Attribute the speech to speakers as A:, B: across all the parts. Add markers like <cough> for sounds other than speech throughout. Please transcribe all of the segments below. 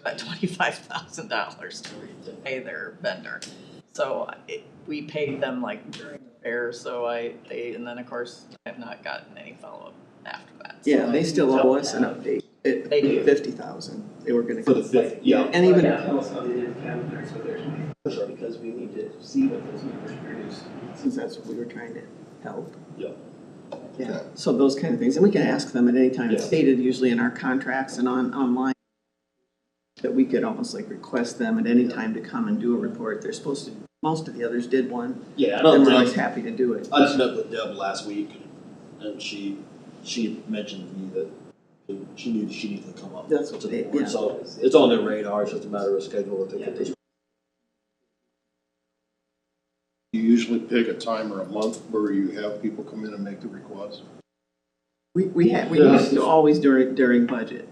A: about twenty-five thousand dollars to to pay their vendor. So it, we paid them like during the fair, so I, they, and then of course, I have not gotten any follow-up after that. So
B: Yeah, they
A: I
B: still
A: don't
B: owe us an
A: know.
B: update.
A: They do.
B: Fifty thousand, they were gonna.
C: For the fifth, yeah,
B: And even,
D: Tell us on the calendar, so there's, because we need to see what those numbers produce.
B: since that's what we were trying to help.
C: Yeah.
B: Yeah, so those kind of things, and we can ask them at any time, it's
C: Yeah.
B: stated usually in our contracts and on, online. That we could almost like request them at any time to come and do a report, they're supposed to, most of the others did one,
C: yeah, I
B: and
C: don't
B: we're always
C: think,
B: happy to do it.
C: I just met with Deb last week, and she, she mentioned to me that she knew she needed to come up.
B: That's
C: to
B: what
C: the
B: they-
C: board.
B: yeah.
C: So, it's on their radar, it's just a matter of schedule, I think, at this
E: You usually pick a time or a month where you have people come in and make the request?
B: We, we had, we
C: Yeah.
B: used to always during, during budget,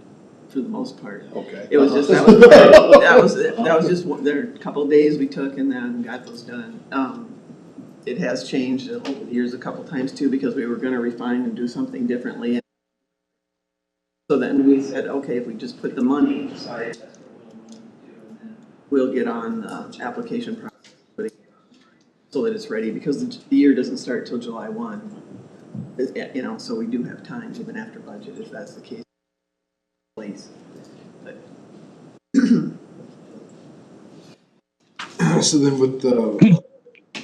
B: for the most part.
E: Okay.
B: It was just, that
E: <laughs>
B: was, that was, that was just, one- there were a couple of days we took and then got those done. Um, It has changed over the years a couple times too, because we were gonna refine and do something differently. So then we said, okay, if we just put the money,
D: Sorry, that's what we'll do. and then-
B: we'll get on the application process. but it- So that it's ready, because the the year doesn't start till July one. It- You know, so we do have time even after budget, if that's the case. Please.
E: So then with the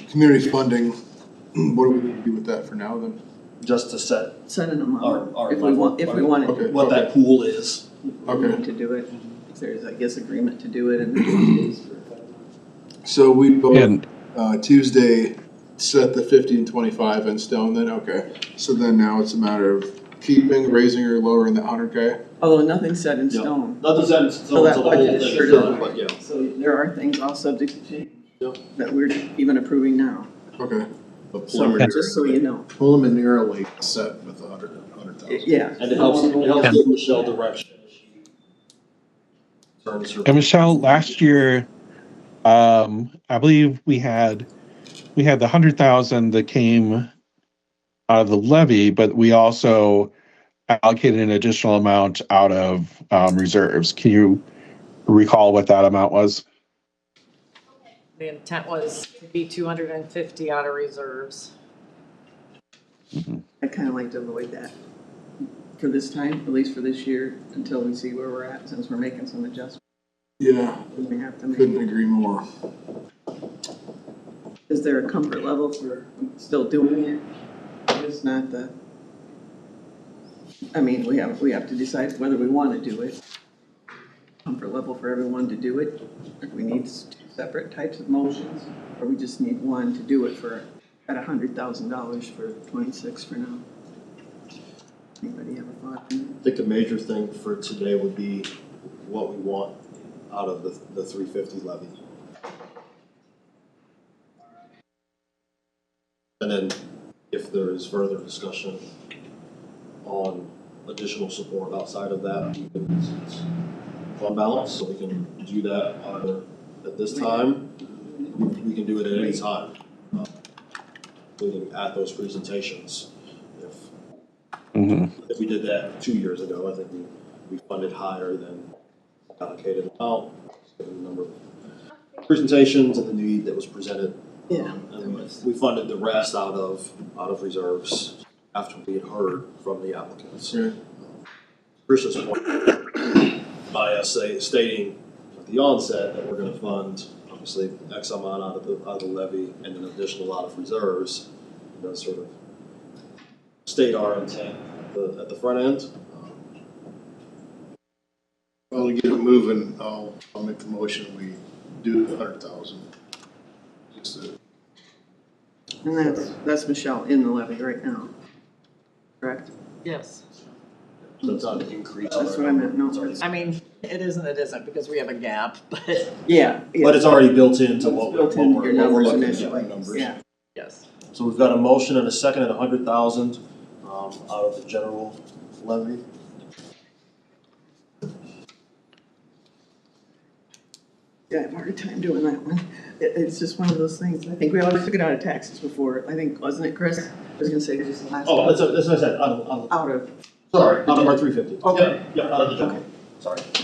E: community funding, what do we need to do with that for now then?
C: just to set
B: sending them
C: our,
B: out
C: our
B: if we
C: level,
B: want, if we wanted
E: Okay.
B: to,
C: what that pool is.
B: we need to do it. If There's, I guess, agreement to do it and
E: So we both,
F: And
E: uh, Tuesday, set the fifty and twenty-five in stone then, okay. So then now it's a matter of keeping, raising or lowering the hundred K?
B: although nothing's set in
C: Yeah.
B: stone.
C: Not to set it, so
B: So
C: the
B: that
C: whole
B: budget
C: thing
B: is
C: is
B: sure
C: done, but yeah.
B: does. So there are things all subject to change
C: Yeah.
B: that we're even approving now.
E: Okay.
B: So just so you know,
E: Preliminarily set with a hundred, a hundred
B: It-
E: thousand.
B: yeah.
C: And it helps, it helps give Michelle direction. as she turns her-
F: and Michelle, last year, um, I believe we had we had the hundred thousand that came out of the levy, but we also allocated an additional amount out of um, reserves. Can you recall what that amount was?
G: The intent was to be two hundred and fifty out of reserves.
B: I kind of like to avoid that for this time, at least for this year, until we see where we're at, since we're making some adjustments
E: Yeah,
B: we have to
E: couldn't
B: make.
E: agree more.
B: Is there a comfort level for still doing it? It's not the, I mean, we have, we have to decide whether we want to do it. Comfort level for everyone to do it, if we need s- two separate types of motions, or we just need one to do it for, at a hundred thousand dollars for twenty-six for now. Anybody have a thought?
C: I think the major thing for today would be what we want out of the, the three fifty levy. And then if there is further discussion on additional support outside of that, we can fund balance, so we can do that either at this time, we- we can do it at any time. uh, Including at those presentations, if
F: Mm-hmm.
C: if we did that two years ago, I think we, we funded higher than allocated amount, given the number of presentations and the need that was presented.
B: Yeah.
C: Um, And we- we funded the rest out of, out of reserves after we had heard from the applicants.
E: Right.
C: Chris's point, by us say, stating at the onset that we're gonna fund, obviously, X amount out of the, out of the levy and an additional lot of reserves, that sort of state our intent at the, at the front end. Um,
E: Well, to get it moving, I'll, I'll make the motion, we do the hundred thousand. Just to
B: And that's, that's Michelle in the levy right now, correct?
A: Yes,
C: So it's not an increase.
B: That's what I meant, no.
C: It's already-
A: I mean, it isn't, it isn't, because we have a gap, <laughs> but
B: Yeah.
C: But it's already built into what we're,
B: Built
C: what
B: into
C: we're,
B: your
C: what we're
B: numbers
C: looking at,
B: initially,
C: numbers.
B: yeah.
A: yes.
C: So we've got a motion and a second at a hundred thousand, um, out of the general levy.
B: Yeah, I have a hard time doing that one. It, it's just one of those things. I think we always took it out of taxes before. I think, wasn't it, Chris? I was gonna say just the last.
C: Oh, that's, that's what I said, out of, out of-
B: Out of,
C: Sorry, out of our three fifty.
B: Okay.
C: Yeah, out of the general, sorry.